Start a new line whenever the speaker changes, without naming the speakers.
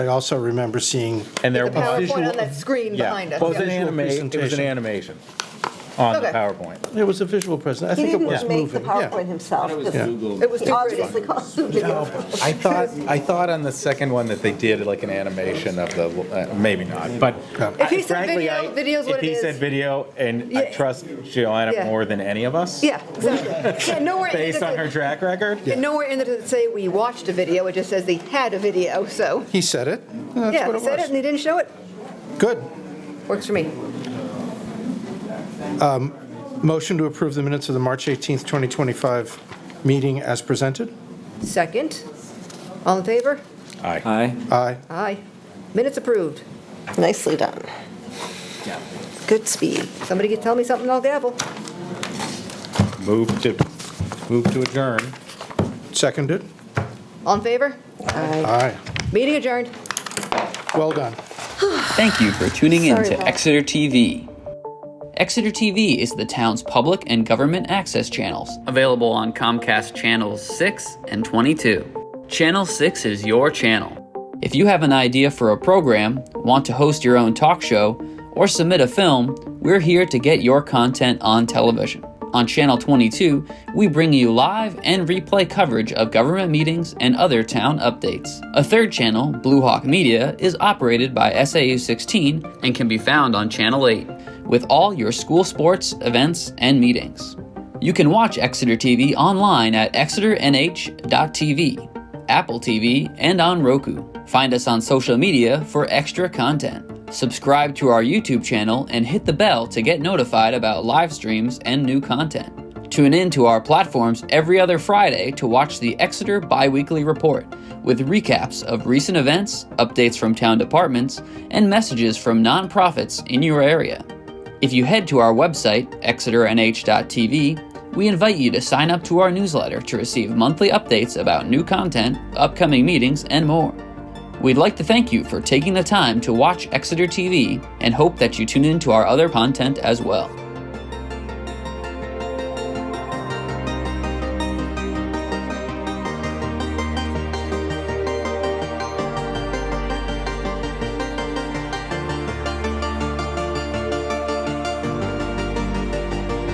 I also remember seeing,
And there
The
was
PowerPoint on that screen
Yeah.
behind us.
Well, it was an
yeah.
Visual
anima- it was an
presentation.
animation on the
Okay.
PowerPoint.
it was a visual presentation. I
He
think it
didn't
was
make the
moving, yeah.
PowerPoint himself.
Yeah.
It was
He
too pretty.
obviously caused the video.
I thought, I thought on the second one that they did like an animation of the, uh, maybe not, but.
If he said
frankly, I-
video, video's what it
If he
is.
said video, and I
Yeah.
trust Joanna
Yeah.
more than any of us.
Yeah, exactly. Yeah, nowhere in it
Based on her
does it-
track record.
and nowhere in it does it say we watched a video, it just says they had a video, so,
He said it, and that's
yeah,
what
they
it
said it and
was.
they didn't show it,
Good.
works for me.
Motion to approve the minutes of the March 18th, 2025 meeting as presented?
Second, all in favor?
Aye.
Aye.
Aye.
Aye. Minutes approved.
Nicely done. Good speed.
Somebody can tell me something, I'll gavel.
Move to, move to adjourn.
Seconded?
All in favor?
Aye.
Meeting adjourned.
Well done.
Thank you for tuning in
Sorry,
to
Bob.
Exeter TV. Exeter TV is the town's public and government access channels, available on Comcast Channels 6 and 22. Channel 6 is your channel. If you have an idea for a program, want to host your own talk show, or submit a film, we're here to get your content on television. On Channel 22, we bring you live and replay coverage of government meetings and other town updates. A third channel, Blue Hawk Media, is operated by SAU 16 and can be found on Channel 8 with all your school sports, events, and meetings. You can watch Exeter TV online at exeternh.tv, Apple TV, and on Roku. Find us on social media for extra content. Subscribe to our YouTube channel and hit the bell to get notified about live streams and new content. Tune in to our platforms every other Friday to watch the Exeter Biweekly Report with recaps of recent events, updates from town departments, and messages from nonprofits in your area. If you head to our website, exeternh.tv, we invite you to sign up to our newsletter to receive monthly updates about new content, upcoming meetings, and more. We'd like to thank you for taking the time to watch Exeter TV and hope that you tune in to our other content as well.